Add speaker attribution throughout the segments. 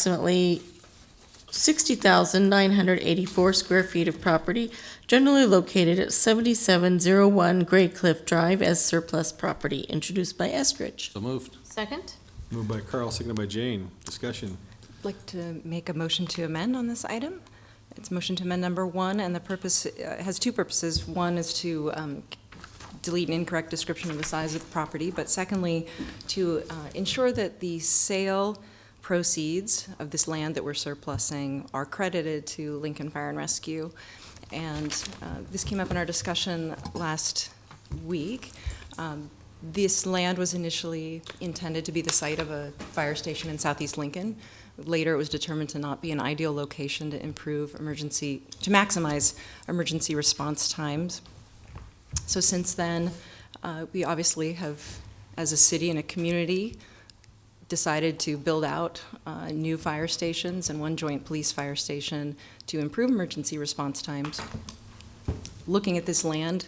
Speaker 1: approximately 60,984 square feet of property generally located at 7701 Gray Cliff Drive as surplus property, introduced by Eskridge.
Speaker 2: So moved.
Speaker 3: Second?
Speaker 4: Moved by Carl, seconded by Jane. Discussion.
Speaker 5: I'd like to make a motion to amend on this item. It's motion to amend number one, and the purpose, uh, has two purposes. One is to um, delete an incorrect description of the size of the property, but secondly, to uh, ensure that the sale proceeds of this land that we're surplusing are credited to Lincoln Fire and Rescue. And uh, this came up in our discussion last week. Um, This land was initially intended to be the site of a fire station in southeast Lincoln. Later, it was determined to not be an ideal location to improve emergency, to maximize emergency response times. So since then, uh, we obviously have, as a city and a community, decided to build out uh, new fire stations and one joint police fire station to improve emergency response times. Looking at this land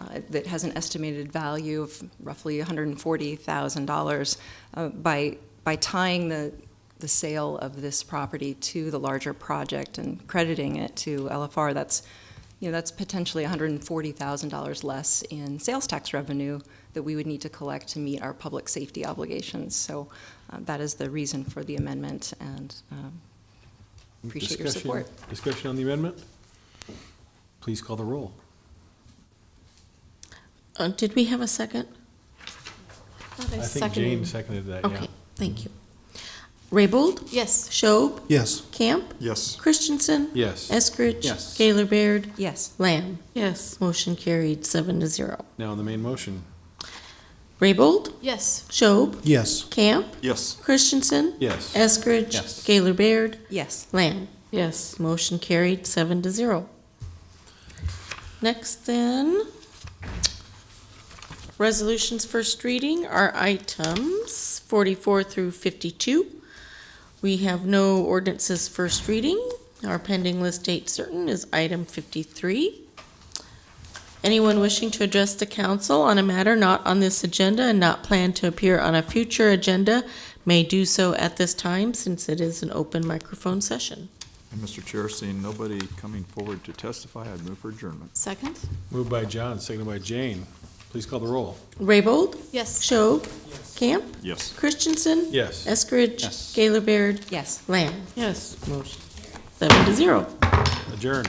Speaker 5: uh, that has an estimated value of roughly $140,000, uh, by, by tying the, the sale of this property to the larger project and crediting it to LFR, that's, you know, that's potentially $140,000 less in sales tax revenue that we would need to collect to meet our public safety obligations. So uh, that is the reason for the amendment, and um, Appreciate your
Speaker 4: Discussion-
Speaker 5: support.
Speaker 4: Discussion on the amendment? Please call the roll.
Speaker 1: Uh, Did we have a second?
Speaker 4: I think Jane seconded that, yeah.
Speaker 1: Okay, thank you. Raybold?
Speaker 3: Yes.
Speaker 1: Schob?
Speaker 6: Yes.
Speaker 1: Camp?
Speaker 6: Yes.
Speaker 1: Christensen?
Speaker 4: Yes.
Speaker 1: Eskridge?
Speaker 2: Yes.
Speaker 1: Gaylor Baird?
Speaker 5: yes,
Speaker 1: Lamb? Yes. Motion carried, seven to zero.
Speaker 4: Now on the main motion.
Speaker 1: Raybold?
Speaker 3: Yes.
Speaker 1: Schob?
Speaker 6: Yes.
Speaker 1: Camp?
Speaker 6: Yes.
Speaker 1: Christensen?
Speaker 4: Yes.
Speaker 1: Eskridge?
Speaker 2: Yes.
Speaker 1: Gaylor Baird?
Speaker 5: yes.
Speaker 1: Lamb? Yes. Motion carried, seven to zero. Next then, resolutions first reading are items forty-four through fifty-two. We have no ordinances first reading. Our pending list date certain is item fifty-three. Anyone wishing to address the council on a matter not on this agenda and not planned to appear on a future agenda may do so at this time since it is an open microphone session.
Speaker 6: And Mr. Chair, seeing nobody coming forward to testify, I'd move for adjournment.
Speaker 3: Second?
Speaker 4: Moved by John, seconded by Jane. Please call the roll.
Speaker 1: Raybold,
Speaker 3: Yes.
Speaker 1: Schob, Camp,
Speaker 6: Yes.
Speaker 1: Christensen,
Speaker 4: Yes.
Speaker 1: Eskridge,
Speaker 2: Yes.
Speaker 1: Gaylor Baird,
Speaker 5: Yes.
Speaker 1: Lamb. Yes. Motion seven to zero.
Speaker 4: Adjourn.